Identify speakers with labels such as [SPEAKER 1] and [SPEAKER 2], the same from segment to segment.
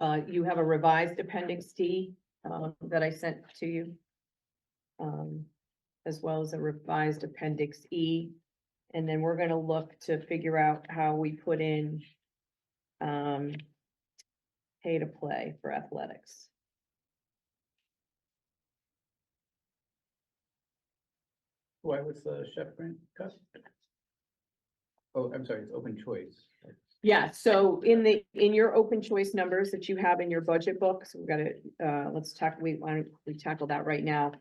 [SPEAKER 1] Uh, you have a revised appendix D, uh, that I sent to you. Um, as well as a revised appendix E. And then we're gonna look to figure out how we put in, um, pay to play for athletics.
[SPEAKER 2] Why was the chef grant cut? Oh, I'm sorry, it's open choice.
[SPEAKER 1] Yeah, so in the, in your open choice numbers that you have in your budget books, we've got to, uh, let's tackle, we want, we tackle that right now.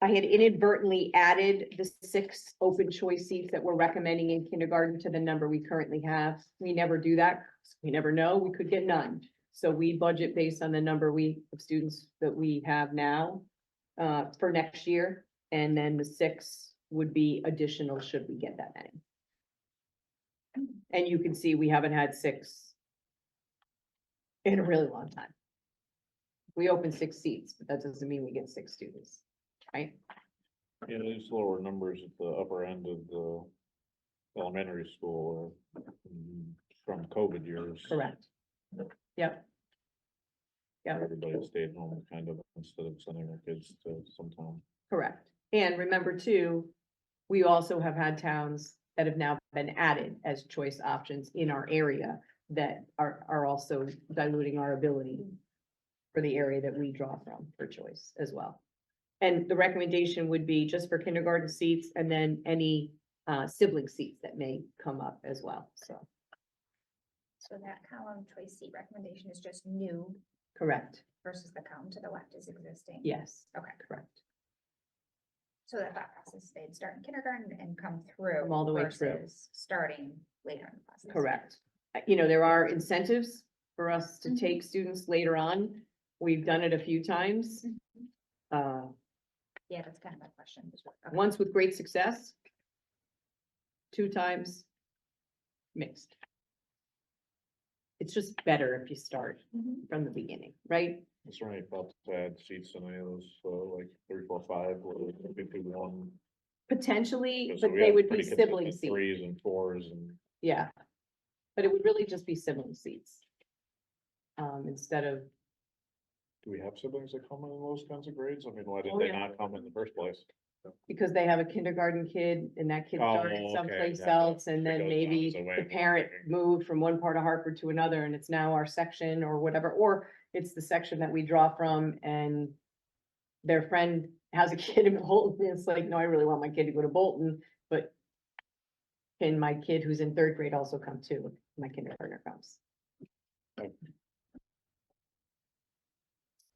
[SPEAKER 1] I had inadvertently added the six open choice seats that we're recommending in kindergarten to the number we currently have. We never do that. 'cause We never know. We could get none. So we budget based on the number we, of students that we have now uh, for next year. And then the six would be additional should we get that many. And you can see we haven't had six in a really long time. We opened six seats, but that doesn't mean we get six students, right?
[SPEAKER 3] Yeah, these lower numbers at the upper end of the elementary school are mm, from COVID years.
[SPEAKER 1] Correct. Yep. Yeah,
[SPEAKER 3] Everybody stayed home kind of instead of sending their kids to some town.
[SPEAKER 1] correct. And remember too, we also have had towns that have now been added as choice options in our area that are, are also diluting our ability for the area that we draw from for choice as well. And the recommendation would be just for kindergarten seats and then any uh, sibling seats that may come up as well, so,
[SPEAKER 4] So that column choice seat recommendation is just new
[SPEAKER 1] correct,
[SPEAKER 4] versus the column to the left is existing.
[SPEAKER 1] yes,
[SPEAKER 4] Okay,
[SPEAKER 1] correct.
[SPEAKER 4] so that thought process stayed start in kindergarten and come through.
[SPEAKER 1] Come all the way through.
[SPEAKER 4] versus Starting later in the process.
[SPEAKER 1] Correct. Uh, You know, there are incentives for us to
[SPEAKER 4] Mhm.
[SPEAKER 1] take students later on. We've done it a few times.
[SPEAKER 4] Mhm.
[SPEAKER 1] Uh,
[SPEAKER 4] Yeah, that's kind of my question. as well. Okay.
[SPEAKER 1] once with great success. Two times mixed. It's just better if you start
[SPEAKER 4] Mhm.
[SPEAKER 1] from the beginning, right?
[SPEAKER 3] It's only about to add seats in any of those, so like three, four, five, or fifty-one.
[SPEAKER 1] Potentially,
[SPEAKER 3] So
[SPEAKER 1] but
[SPEAKER 3] we
[SPEAKER 1] they
[SPEAKER 3] have
[SPEAKER 1] would be
[SPEAKER 3] pretty
[SPEAKER 1] sibling
[SPEAKER 3] consistent
[SPEAKER 1] seats,
[SPEAKER 3] Threes and fours and
[SPEAKER 1] yeah. But it would really just be sibling seats. Um, instead of,
[SPEAKER 3] do we have siblings that come in those kinds of grades? I mean, why did
[SPEAKER 1] Oh,
[SPEAKER 3] they
[SPEAKER 1] yeah.
[SPEAKER 3] not come in the first place?
[SPEAKER 1] because they have a kindergarten kid and that kid
[SPEAKER 3] Oh,
[SPEAKER 1] started
[SPEAKER 3] okay,
[SPEAKER 1] someplace
[SPEAKER 3] gotcha.
[SPEAKER 1] else and
[SPEAKER 3] It
[SPEAKER 1] then
[SPEAKER 3] goes
[SPEAKER 1] maybe
[SPEAKER 3] miles away
[SPEAKER 1] the
[SPEAKER 3] from
[SPEAKER 1] parent
[SPEAKER 3] everything.
[SPEAKER 1] moved from one part of Hartford to another and it's now our section or whatever, or it's the section that we draw from and their friend has a kid in Bolton, it's like, no, I really want my kid to go to Bolton, but can my kid who's in third grade also come too? if My kindergartner comes.
[SPEAKER 3] Okay.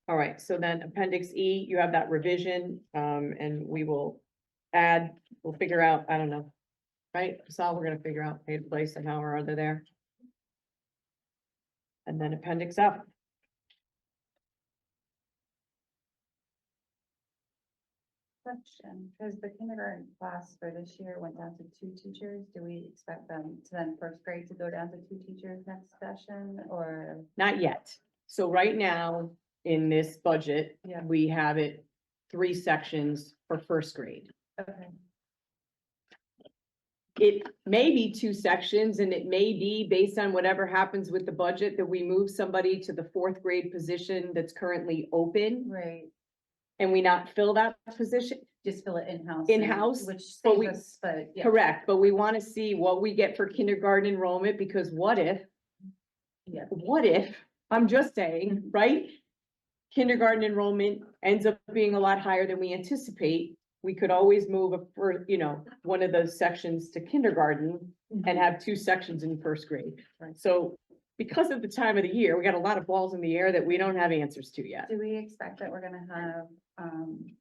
[SPEAKER 1] All right, so then appendix E, you have that revision, um, and we will add, we'll figure out, I don't know. Right, so we're gonna figure out paid place and how or other there. And then appendix F.
[SPEAKER 5] Question, because the kindergarten class for this year went down to two teachers, do we expect them to then first grade to go down to two teachers next session or?
[SPEAKER 1] Not yet. So right now, in this budget,
[SPEAKER 5] Yeah.
[SPEAKER 1] we have it three sections for first grade.
[SPEAKER 5] Okay,
[SPEAKER 1] It may be two sections and it may be based on whatever happens with the budget that we move somebody to the fourth grade position that's currently open
[SPEAKER 5] right,
[SPEAKER 1] and we not fill that position.
[SPEAKER 5] just fill it in-house. and-
[SPEAKER 1] In-house,
[SPEAKER 5] Which
[SPEAKER 1] but
[SPEAKER 5] saves
[SPEAKER 1] we-
[SPEAKER 5] us, but yeah.
[SPEAKER 1] Correct, but we want to see what we get for kindergarten enrollment because what if
[SPEAKER 5] Yeah,
[SPEAKER 1] what if, I'm just saying, right? Kindergarten enrollment ends up being a lot higher than we anticipate. We could always move a, fir- you know, one of those sections to kindergarten and have two sections in first grade.
[SPEAKER 5] Right.
[SPEAKER 1] So because of the time of the year, we got a lot of balls in the air that we don't have answers to yet.
[SPEAKER 5] do we expect that we're gonna have, um,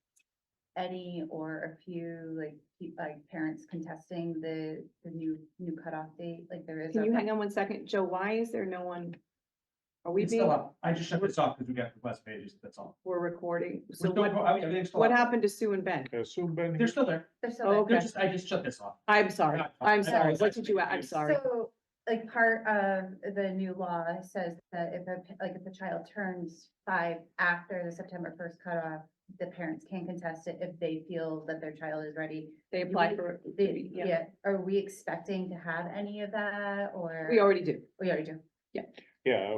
[SPEAKER 5] any or a few, like, pe- like parents contesting the, the new, new cutoff date, like there is?
[SPEAKER 1] Can
[SPEAKER 5] a-
[SPEAKER 1] you hang on one second? Joe, why is there no one? Are we
[SPEAKER 6] It's still
[SPEAKER 1] being,
[SPEAKER 6] up. I just shut this off because we got the west pages, that's all.
[SPEAKER 1] we're recording?
[SPEAKER 6] We're
[SPEAKER 1] So
[SPEAKER 6] still,
[SPEAKER 1] what,
[SPEAKER 6] I mean, everything's still
[SPEAKER 1] what
[SPEAKER 6] up.
[SPEAKER 1] happened to Sue and Ben?
[SPEAKER 3] I assume Ben.
[SPEAKER 6] They're still there.
[SPEAKER 5] There's still.
[SPEAKER 1] Oh,
[SPEAKER 6] They're
[SPEAKER 1] Okay.
[SPEAKER 6] just, I just shut this off.
[SPEAKER 1] I'm sorry. I'm sorry. What did you, I'm sorry.
[SPEAKER 5] So, like, part of the new law says that if a, like, if a child turns five after the September first cutoff, the parents can contest it if they feel that their child is ready.
[SPEAKER 1] They applied for.
[SPEAKER 5] They,
[SPEAKER 1] yeah.
[SPEAKER 5] yeah, are we expecting to have any of that, or?
[SPEAKER 1] We already do.
[SPEAKER 5] We already do.
[SPEAKER 3] Yeah,